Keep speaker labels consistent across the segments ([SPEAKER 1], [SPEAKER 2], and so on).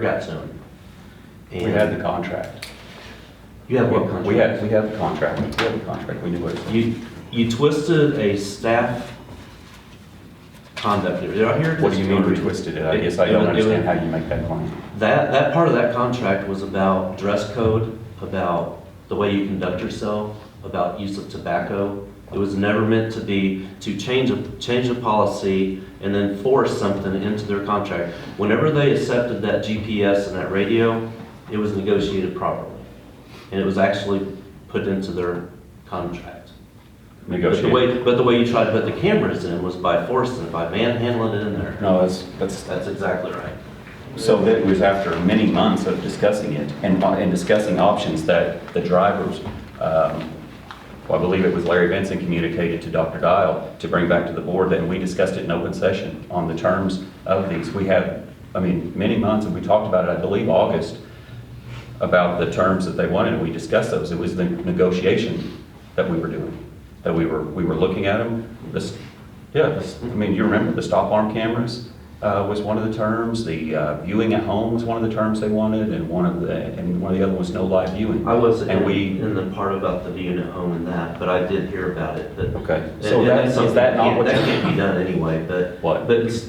[SPEAKER 1] got zone.
[SPEAKER 2] We had the contract.
[SPEAKER 1] You have what contract?
[SPEAKER 2] We had, we had the contract, we had the contract, we knew what it was.
[SPEAKER 1] You, you twisted a staff conduct, did I hear? it?
[SPEAKER 2] What do you mean we twisted it? I guess I
[SPEAKER 1] It- it
[SPEAKER 2] don't
[SPEAKER 1] was- it was-
[SPEAKER 2] understand how you make that claim.
[SPEAKER 1] That, that part of that contract was about dress code, about the way you conduct yourself, about use of tobacco. It was never meant to be to change a, change a policy and then force something into their contract. Whenever they accepted that GPS and that radio, it was negotiated properly. And it was actually put into their contract. But the
[SPEAKER 2] Negotiate.
[SPEAKER 1] way, but the way you tried to put the cameras in was by forcing it, by manhandling it in there.
[SPEAKER 2] No, that's, that's,
[SPEAKER 1] That's exactly right.
[SPEAKER 2] so that was after many months of discussing it and, and discussing options that the drivers, um, well, I believe it was Larry Benson communicated to Dr. Dial to bring back to the board, and we discussed it in open session on the terms of these. We had, I mean, many months, and we talked about it, I believe, August, about the terms that they wanted, and we discussed those. It was the negotiation that we were doing, that we were, we were looking at them. This, yeah, this, I mean, you remember the stop arm cameras uh, was one of the terms, the uh, viewing at home was one of the terms they wanted, and one of the, and one of the other was no live viewing.
[SPEAKER 1] I was
[SPEAKER 2] And
[SPEAKER 1] in,
[SPEAKER 2] we,
[SPEAKER 1] in the part about the unit home and that, but I did hear about it, but.
[SPEAKER 2] okay,
[SPEAKER 1] and-
[SPEAKER 2] so
[SPEAKER 1] and
[SPEAKER 2] that, is
[SPEAKER 1] something
[SPEAKER 2] that not what?
[SPEAKER 1] can't- That
[SPEAKER 2] you-
[SPEAKER 1] can't be done anyway, but.
[SPEAKER 2] What?
[SPEAKER 1] But it's-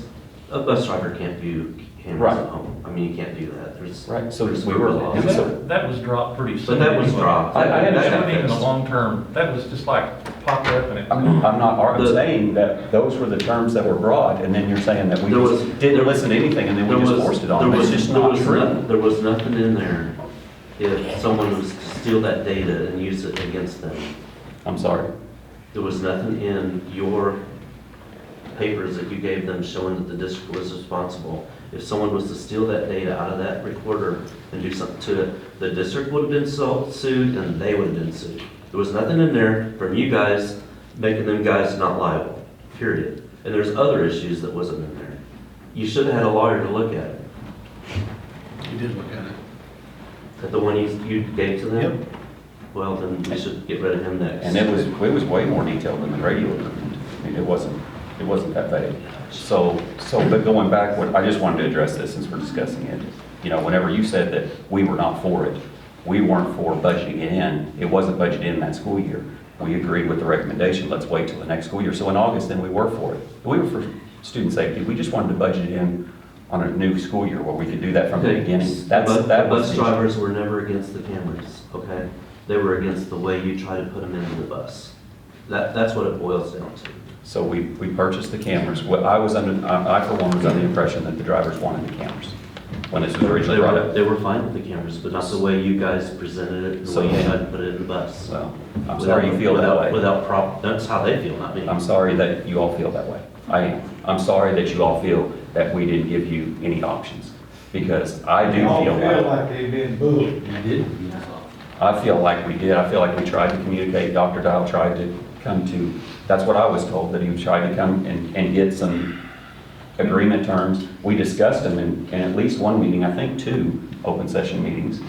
[SPEAKER 1] a bus driver can't view cameras at
[SPEAKER 2] Right.
[SPEAKER 1] home. I mean, you can't do that. There's.
[SPEAKER 2] Right, so
[SPEAKER 1] there's
[SPEAKER 2] we were-
[SPEAKER 1] laws.
[SPEAKER 2] and so-
[SPEAKER 3] That, that was dropped pretty soon.
[SPEAKER 1] But that was
[SPEAKER 3] anyway.
[SPEAKER 1] dropped.
[SPEAKER 2] I- I
[SPEAKER 3] That
[SPEAKER 2] understand
[SPEAKER 3] wasn't even
[SPEAKER 1] that.
[SPEAKER 3] a long term, that was just like popped up and it.
[SPEAKER 2] I'm, I'm not, I'm
[SPEAKER 1] The-
[SPEAKER 2] saying that those were the terms that were brought, and then you're saying that we
[SPEAKER 1] There was-
[SPEAKER 2] just didn't
[SPEAKER 1] there-
[SPEAKER 2] listen to anything, and then
[SPEAKER 1] There
[SPEAKER 2] we just
[SPEAKER 1] was-
[SPEAKER 2] forced it
[SPEAKER 1] there
[SPEAKER 2] on them. It's
[SPEAKER 1] was-
[SPEAKER 2] just
[SPEAKER 1] there
[SPEAKER 2] not
[SPEAKER 1] was
[SPEAKER 2] true.
[SPEAKER 1] no- There was nothing in there if someone was to steal that data and use it against them.
[SPEAKER 2] I'm sorry.
[SPEAKER 1] There was nothing in your papers that you gave them showing that the district was responsible. If someone was to steal that data out of that recorder and do something to it, the district would have been so- sued and they would have been sued. There was nothing in there from you guys making them guys not liable, period. And there's other issues that wasn't in there. You should have had a lawyer to look at it,
[SPEAKER 4] You did look at it.
[SPEAKER 1] at the one you, you gave to them. Well, then we should get rid of him next.
[SPEAKER 2] And it was, it was way more detailed than the radio agreement. I mean, it wasn't, it wasn't that vague. So, so, but going back, what, I just wanted to address this since we're discussing it. You know, whenever you said that we were not for it, we weren't for budgeting it in. It wasn't budgeted in that school year. We agreed with the recommendation, let's wait till the next school year. So in August, then we were for it. We were for student safety. We just wanted to budget it in on a new school year where we could do that from the
[SPEAKER 1] Okay,
[SPEAKER 2] beginning. That's,
[SPEAKER 1] but the
[SPEAKER 2] that was.
[SPEAKER 1] Bus
[SPEAKER 2] the issue.
[SPEAKER 1] drivers were never against the cameras, okay? They were against the way you try to put them into the bus. That, that's what it boils down to.
[SPEAKER 2] So we, we purchased the cameras. What I was under, I I for one was under the impression that the drivers wanted the cameras when this was
[SPEAKER 1] They
[SPEAKER 2] originally brought
[SPEAKER 1] were,
[SPEAKER 2] up.
[SPEAKER 1] they were fine with the cameras, but not the way you guys presented it, and the
[SPEAKER 2] So
[SPEAKER 1] way you
[SPEAKER 2] you-
[SPEAKER 1] tried to put it in the bus.
[SPEAKER 2] So I'm sorry you feel that
[SPEAKER 1] Without-
[SPEAKER 2] way. Uh,
[SPEAKER 1] Without prop, that's how they feel, not me.
[SPEAKER 2] I'm sorry that you all feel that way. I am. I'm sorry that you all feel that we didn't give you any options because I do
[SPEAKER 5] They all
[SPEAKER 2] feel
[SPEAKER 5] feel
[SPEAKER 2] like,
[SPEAKER 5] like they've been bullied.
[SPEAKER 2] I feel like we did. I feel like we tried to communicate. Dr. Dial tried to come to, that's what I was told, that he tried to come and, and get some agreement terms. We discussed them in, in at least one meeting, I think two open session meetings,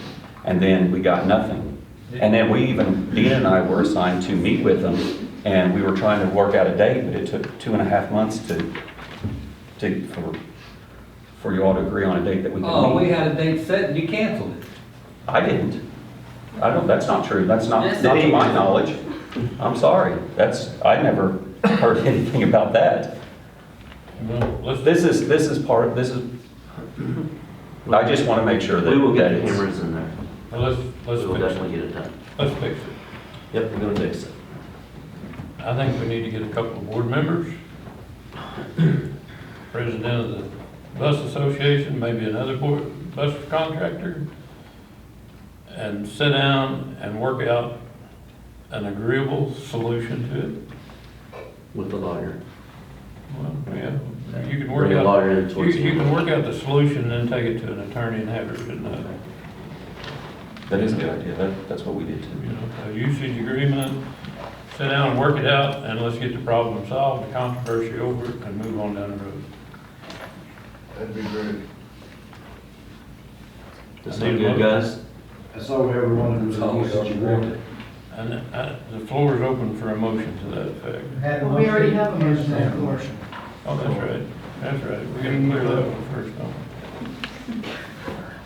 [SPEAKER 2] and then we got nothing. And then we even, Dean and I were assigned to meet with them, and we were trying to work out a date, but it took two and a half months to, to, for, for you all to agree on a date that we could meet.
[SPEAKER 6] Oh, we had a date set and you canceled it.
[SPEAKER 2] I didn't. I don't, that's not true. That's not, not to my knowledge. I'm sorry. That's, I never heard anything about that.
[SPEAKER 3] Well, let's-
[SPEAKER 2] This is, this is part, this is, I just want to make sure that.
[SPEAKER 1] We will get
[SPEAKER 2] that
[SPEAKER 1] the
[SPEAKER 2] it's-
[SPEAKER 1] cameras in there.
[SPEAKER 3] well, let's, let's
[SPEAKER 1] We will
[SPEAKER 3] fix it.
[SPEAKER 1] definitely get it done.
[SPEAKER 3] Let's fix it.
[SPEAKER 1] Yep, we're gonna fix it.
[SPEAKER 3] I think we need to get a couple of board members, president of the bus association, maybe another board, bus contractor, and sit down and work out an agreeable solution to it.
[SPEAKER 1] With the lawyer.
[SPEAKER 3] Well, yeah, you can work
[SPEAKER 1] Bring a
[SPEAKER 3] out.
[SPEAKER 1] lawyer in
[SPEAKER 3] You,
[SPEAKER 1] towards the
[SPEAKER 3] you
[SPEAKER 1] end.
[SPEAKER 3] can work out the solution and then take it to an attorney and have it written up,
[SPEAKER 2] That is a good idea. That, that's what we did
[SPEAKER 3] you
[SPEAKER 2] too.
[SPEAKER 3] know, a usage agreement, sit down and work it out, and let's get the problem solved, the controversy over, it, and move on down the road.
[SPEAKER 5] That'd be great.
[SPEAKER 1] Does
[SPEAKER 3] I
[SPEAKER 1] that
[SPEAKER 3] need
[SPEAKER 1] good,
[SPEAKER 3] one.
[SPEAKER 1] guys?
[SPEAKER 5] That's all we ever wanted was
[SPEAKER 6] Oh,
[SPEAKER 5] a usage agreement.
[SPEAKER 3] And uh, the floor is open for a motion to that effect.
[SPEAKER 7] Well, we already have a motion on the floor.
[SPEAKER 3] Oh, that's right, that's right, we gotta clear that one first, don't